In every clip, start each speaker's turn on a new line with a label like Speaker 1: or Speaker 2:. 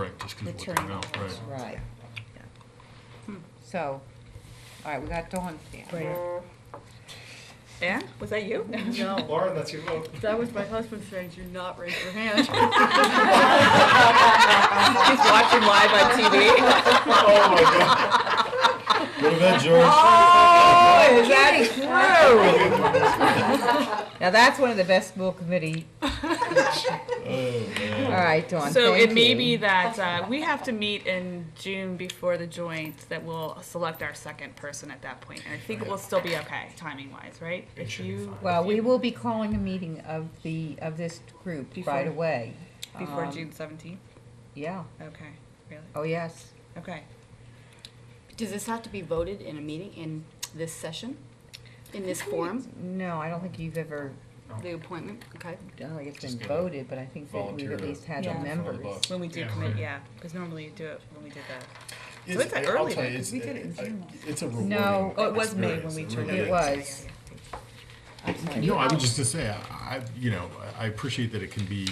Speaker 1: Right, just
Speaker 2: the
Speaker 1: because what they
Speaker 2: turnout
Speaker 1: know,
Speaker 2: was,
Speaker 1: right.
Speaker 2: Right. yeah. So, all right, we got Dawn. down.
Speaker 3: Anne, was that you?
Speaker 4: No,
Speaker 5: Lauren, that's your vote.
Speaker 4: that was my husband saying, do not raise your hand.
Speaker 3: She's watching live on TV.
Speaker 5: Oh, my God. What about George?
Speaker 3: Oh, is that
Speaker 5: Oh,
Speaker 3: true?
Speaker 2: Now, that's one of the best school committee,
Speaker 5: Oh, man.
Speaker 2: all right, Dawn,
Speaker 3: So
Speaker 2: thank
Speaker 3: it may
Speaker 2: you.
Speaker 3: be that uh, we have to meet in June before the joint that we'll select our second person at that point. And I think it will still be okay, timing wise, right?
Speaker 5: It
Speaker 3: If
Speaker 5: should be
Speaker 3: you-
Speaker 5: fine.
Speaker 2: Well, we will be calling a meeting of the, of this group right
Speaker 3: Before-
Speaker 2: away.
Speaker 3: Before
Speaker 2: Um,
Speaker 3: June seventeenth?
Speaker 2: Yeah,
Speaker 3: Okay, really?
Speaker 2: oh, yes.
Speaker 3: Okay.
Speaker 6: Does this have to be voted in a meeting in this session? In this forum,
Speaker 2: No, I don't think you've ever,
Speaker 6: the appointment, okay?
Speaker 2: I don't think it's
Speaker 5: Just
Speaker 2: been
Speaker 5: get a
Speaker 2: voted, but I think that we've
Speaker 5: volunteer
Speaker 2: at
Speaker 5: to-
Speaker 2: least had
Speaker 3: Yeah.
Speaker 2: the
Speaker 3: Fill the
Speaker 2: members.
Speaker 5: box.
Speaker 3: When we do
Speaker 5: Yeah.
Speaker 3: commit, yeah, because normally you do it when we did that. So
Speaker 5: It's-
Speaker 3: it's like
Speaker 5: I'll
Speaker 3: early
Speaker 5: tell
Speaker 3: then,
Speaker 5: you, it's-
Speaker 3: 'cause we did it in
Speaker 5: I-
Speaker 3: June.
Speaker 5: It's a rewarding.
Speaker 2: No.
Speaker 3: Oh, it was May when
Speaker 5: experience.
Speaker 3: we
Speaker 5: It
Speaker 3: joined.
Speaker 5: really
Speaker 2: It
Speaker 5: is.
Speaker 2: was.
Speaker 1: No, I was just gonna say, I, I- you know, I I appreciate that it can be,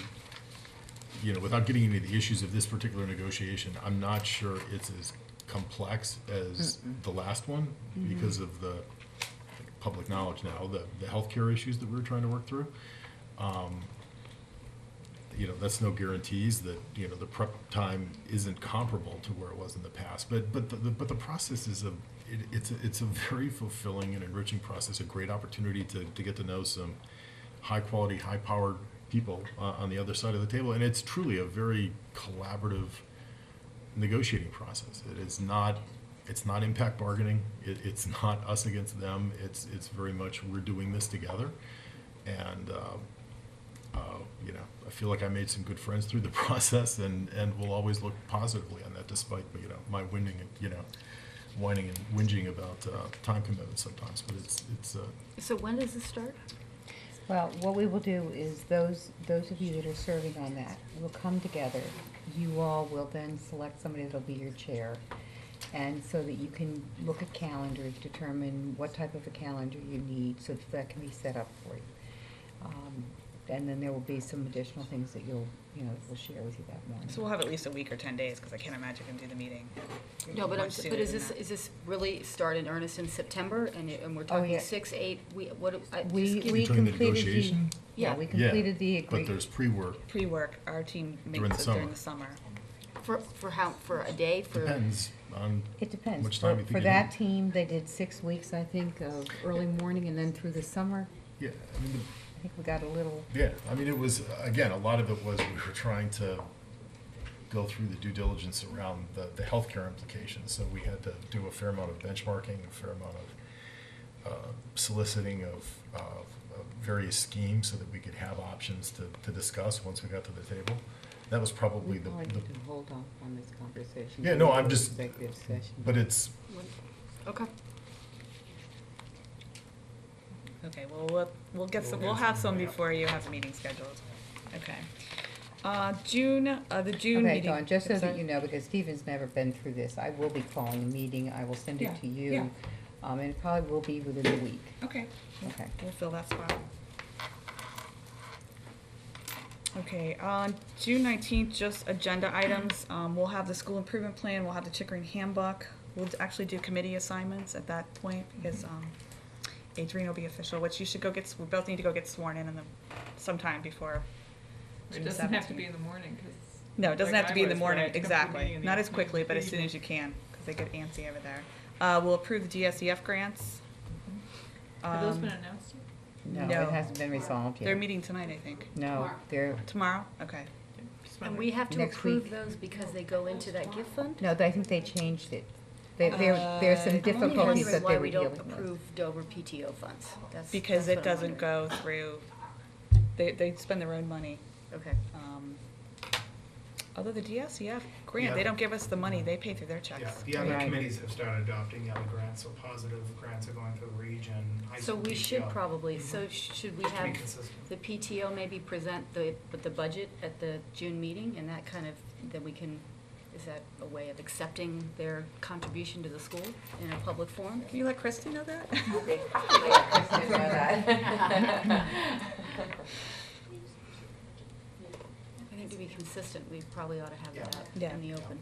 Speaker 1: you know, without getting into the issues of this particular negotiation, I'm not sure it's as complex as the last one because of the like, public knowledge now, the, the healthcare issues that we were trying to work through. Um, You know, that's no guarantees that, you know, the prep time isn't comparable to where it was in the past, but, but, the- the- but the process is a, it, it's, a- it's a very fulfilling and enriching process, a great opportunity to, to get to know some high-quality, high-powered people uh, on the other side of the table, and it's truly a very collaborative negotiating process. It is not, it's not impact bargaining, it, it's not us against them, it's, it's very much, we're doing this together. And, uh, uh, you know, I feel like I made some good friends through the process and, and will always look positively on that despite, you know, my whining, and, you know, whining and whinging about uh, time commitments sometimes, but it's, it's, uh,
Speaker 6: So when does this start?
Speaker 2: Well, what we will do is those, those of you that are serving on that will come together. You all will then select somebody that'll be your chair. And so that you can look at calendars, determine what type of a calendar you need, so that that can be set up for you. Um, And then there will be some additional things that you'll, you know, we'll share with you that morning.
Speaker 3: So we'll have at least a week or ten days, because I can't imagine we can do the meeting.
Speaker 6: No, but I'm,
Speaker 3: much
Speaker 6: but
Speaker 3: sooner
Speaker 6: is
Speaker 3: than
Speaker 6: this,
Speaker 3: that.
Speaker 6: is this really start in earnest in September, and, it- and we're talking
Speaker 2: Oh, yeah.
Speaker 6: six, eight, we, what, I uh, just
Speaker 2: We,
Speaker 6: give-
Speaker 2: we
Speaker 1: During the
Speaker 2: completed the,
Speaker 1: negotiation?
Speaker 2: yeah, we
Speaker 6: Yeah.
Speaker 2: completed the
Speaker 1: yeah, but
Speaker 2: agreement.
Speaker 1: there's pre-work,
Speaker 3: Pre-work, our team
Speaker 1: During the
Speaker 3: makes it during
Speaker 1: summer.
Speaker 3: the summer.
Speaker 6: For, for how, for a day, for?
Speaker 1: depends on
Speaker 2: It depends.
Speaker 1: Much time
Speaker 2: For-
Speaker 1: you think
Speaker 2: For
Speaker 1: you
Speaker 2: that
Speaker 1: need.
Speaker 2: team, they did six weeks, I think, of early morning and then through the summer.
Speaker 1: Yeah, I mean,
Speaker 2: I think we got a little,
Speaker 1: the- yeah, I mean, it was, again, a lot of it was we were trying to go through the due diligence around the, the healthcare implications. So we had to do a fair amount of benchmarking, a fair amount of uh, soliciting of, of of various schemes so that we could have options to, to discuss once we got to the table. That was
Speaker 7: We
Speaker 1: probably the,
Speaker 7: probably
Speaker 1: the-
Speaker 7: need to hold off on this conversation.
Speaker 1: Yeah, no, I'm
Speaker 7: until
Speaker 1: just-
Speaker 7: Executive session.
Speaker 1: but it's,
Speaker 6: Okay,
Speaker 3: Okay, well, we'll, we'll get some, we'll have some before you have the meeting scheduled. Okay. Uh, June, uh, the June
Speaker 2: okay,
Speaker 3: meeting.
Speaker 2: Dawn, just so that
Speaker 3: Sorry.
Speaker 2: you know, because Stephen's never been through this, I will be calling a meeting, I will send it
Speaker 3: Yeah,
Speaker 2: to
Speaker 3: yeah.
Speaker 2: you. Um, and it probably will be within a week,
Speaker 3: Okay,
Speaker 2: okay.
Speaker 3: we'll fill that spot. Okay, on June nineteenth, just agenda items, um, we'll have the school improvement plan, we'll have the Chickering handbook. We'll actually do committee assignments at that point, because, um, Adrian will be official, which you should go get, s- we both need to go get sworn in in the, sometime before. June
Speaker 8: It doesn't have to
Speaker 3: 17th.
Speaker 8: be in the morning, 'cause
Speaker 3: No, it doesn't
Speaker 8: like
Speaker 3: have to
Speaker 8: I
Speaker 3: be in the
Speaker 8: was, where
Speaker 3: morning,
Speaker 8: I'd come from meeting
Speaker 3: exactly.
Speaker 8: in the
Speaker 3: Not as
Speaker 8: afternoon
Speaker 3: quickly,
Speaker 8: to
Speaker 3: but as
Speaker 8: the
Speaker 3: soon as you
Speaker 8: evening.
Speaker 3: can, because they get antsy over there. Uh, we'll approve the DSEF grants.
Speaker 8: Have those
Speaker 3: Um,
Speaker 8: been announced? yet?
Speaker 2: No,
Speaker 3: No.
Speaker 2: it hasn't been resolved yet.
Speaker 3: They're meeting tonight, I think.
Speaker 2: No, they're,
Speaker 3: Tomorrow? Okay.
Speaker 8: Just
Speaker 6: and
Speaker 8: wondering.
Speaker 6: we have to
Speaker 2: Next
Speaker 6: approve
Speaker 2: week.
Speaker 6: those because they go into that gift fund?
Speaker 2: no, I think they changed it. There, there, there's some
Speaker 3: Uh, I'm
Speaker 6: I'm only
Speaker 2: difficulties
Speaker 6: wondering
Speaker 2: that
Speaker 6: why
Speaker 2: they were
Speaker 6: we
Speaker 2: dealing
Speaker 6: don't
Speaker 2: with.
Speaker 6: approve Dover PTO funds, that's.
Speaker 3: Because
Speaker 6: that's
Speaker 3: it
Speaker 6: what I'm
Speaker 3: doesn't
Speaker 6: wondering.
Speaker 3: go through, they, they spend their own money.
Speaker 6: Okay,
Speaker 3: Um, Although the DSEF grant, they
Speaker 5: Yeah.
Speaker 3: don't give us the money, they pay through their
Speaker 5: yeah,
Speaker 3: checks.
Speaker 5: the other
Speaker 2: Right.
Speaker 5: committees have started adopting the other grants, so positive grants are going through region. high
Speaker 6: so
Speaker 5: school
Speaker 6: we should
Speaker 5: PTO,
Speaker 6: probably, so sh- should we
Speaker 5: Mm-hmm. To be
Speaker 6: have
Speaker 5: consistent.
Speaker 6: the PTO maybe present the, but the budget at the June meeting, and that kind of, then we can, is that a way of accepting their contribution to the school in a public forum?
Speaker 3: Can you let Christy know that?
Speaker 6: I think think to be consistent, we probably ought to have that
Speaker 3: Yeah.
Speaker 6: out in the open.